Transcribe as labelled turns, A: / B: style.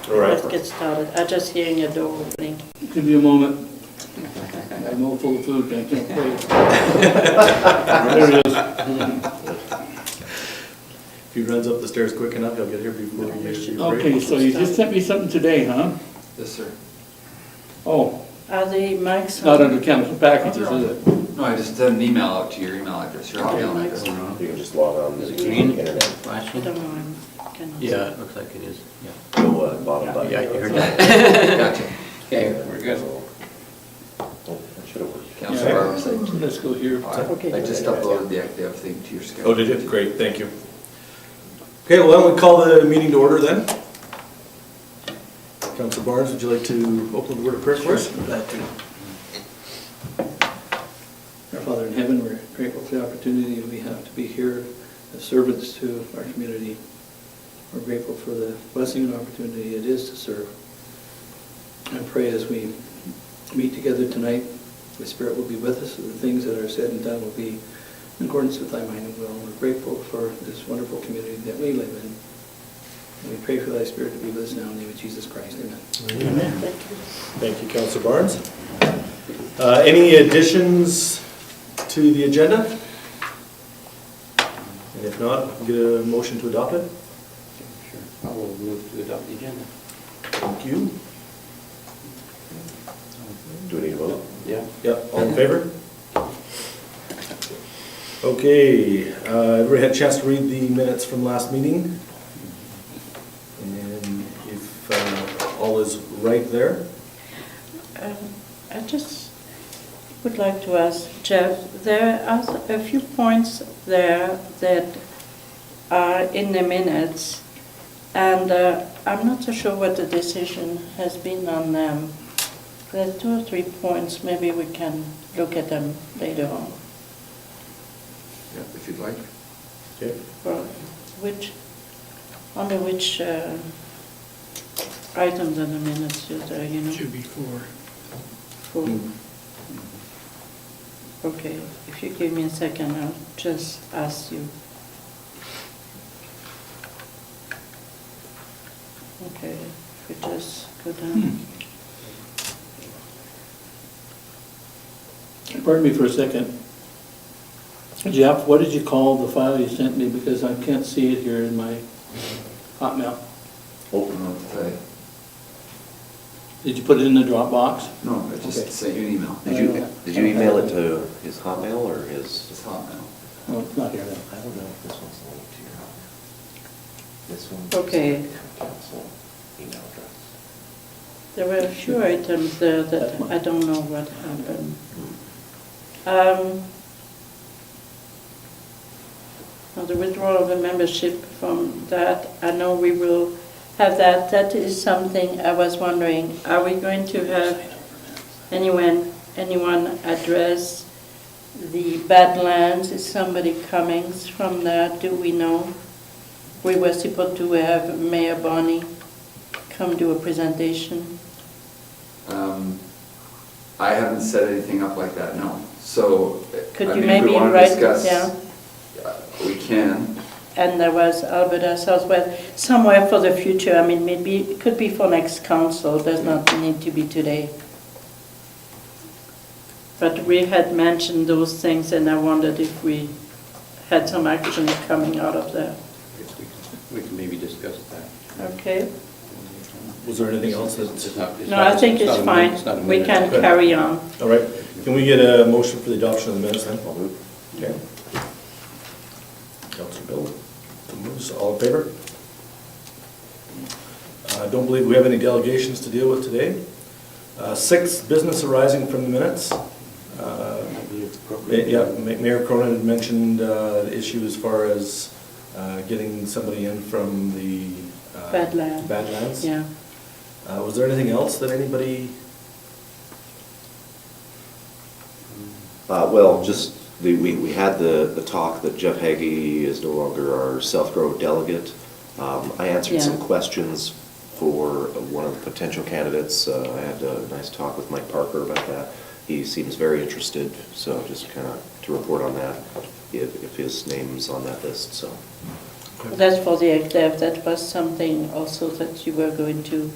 A: All
B: Let's
A: right.
B: get started. I'm just hearing a door opening.
C: Give me a moment. I'm all full of food, I can't wait. There it is.
D: If he runs up the stairs quick enough, he'll get here before you- you. break.
C: Okay, so you just sent me something today, huh?
E: Yes, sir.
C: Oh,
B: Are the mics
C: it's not
B: on?
C: under chemical packages, is it?
E: No, I just sent an email out to your email address, your email address.
A: You can just log on to the
F: green?
A: internet,
B: I don't know, I'm kind of...
F: Yeah, it looks like it is, yeah.
A: the uh, bottom button.
F: Yeah, you heard that.
E: Gotcha.
F: Okay, we're good.
A: Oh, that should have worked.
E: Counselor Barros,
C: Let's go here.
E: I I just uploaded the active thing to your schedule.
D: Oh, did it? Great, thank you. Okay, well, why don't we call the meeting to order then? Counselor Barnes, would you like to open the word of prayer for us?
C: Our Father in heaven, we're grateful for the opportunity we have to be here as servants to our community. We're grateful for the blessing and opportunity it is to serve. I pray as we meet together tonight, the Spirit will be with us, and the things that are said and done will be in accordance with thy mind and will. We're grateful for this wonderful community that we live in. And we pray for thy Spirit to be with us now in the name of Jesus Christ, amen.
D: Thank you, Counselor Barnes. Uh, Any additions to the agenda? And if not, get a motion to adopt it?
F: Sure. I will move to adopt the agenda.
D: Thank you.
A: Do we need a vote?
F: Yeah.
D: Yep, all in favor? Okay, uh, everybody had a chance to read the minutes from last meeting? And if uh, all is right there,
B: Um, I just would like to ask Jeff, there are a few points there that are in the minutes, and uh, I'm not so sure what the decision has been on them. There are two or three points, maybe we can look at them later on.
E: Yeah, If you'd like.
D: okay,
B: Well, Which, under which uh, items in the minutes is there, you know?
C: be four.
B: Cool. Okay, if you give me a second, I'll just ask you. Okay, if we just go down.
C: Pardon me for a second. Jeff, what did you call the file you sent me, because I can't see it here in my Hotmail?
D: Oh.
E: Open up the,
C: Did you put it in the Dropbox?
E: no, I
C: Okay.
E: just sent you an email. Uh,
C: Did you-
A: Did you email it to his Hotmail or his?
E: It's hot now.
C: Oh, it's not here then.
A: I don't know if this one's linked to your Hotmail. This one.
B: Okay.
A: Council email address.
B: There were a few items there uh, that I don't know what happened. Um, now The withdrawal of the membership from that, I know we will have that. That is something I was wondering, are we going to have anyone, anyone address the Badlands? Is somebody coming from there? Do we know? We were supposed to have Mayor Bonnie come do a presentation.
E: Um, I haven't set anything up like that, no. So. I
B: Could you
E: mean, if we
B: maybe
E: wanna
B: write it
E: discuss-
B: down?
E: uh, We can.
B: And there was Alberta Southwest, somewhere for the future, I mean, maybe, it could be for next council, does not need to be today. But we had mentioned those things and I wondered if we had some action coming out of there.
F: I guess we can- We can maybe discuss that.
B: Okay?
D: was there anything else
F: It's
D: that's,
F: not- it's
B: No,
F: not-
B: I think
F: not
B: it's
F: a min-
B: fine.
F: it's not a
B: We
F: minute.
B: can
D: Okay.
B: carry on.
D: all right, can we get a motion for the adoption of the minutes then?
A: I'll move.
D: Okay. Counselor Bill moves, all in favor? I don't believe we have any delegations to deal with today. Uh, Six, business arising from the minutes. Uh,
F: Might be appropriate.
D: Yeah, Ma- Mayor Cronin had mentioned uh, the issue as far as uh, getting somebody in from the. uh,
B: Badlands.
D: Badlands.
B: Yeah.
D: Uh, Was there anything else that anybody,
A: Uh, well, just, the, we, we had the, the talk that Jeff Haggy is no longer our South Grove delegate. Um, I answered some
B: Yeah.
A: questions for one of the potential candidates. Uh, I had a nice talk with Mike Parker about that. He seems very interested, so just kind of to report on that, if, if his name's on that list, so.
B: That's for the executive, that was something also that you were going to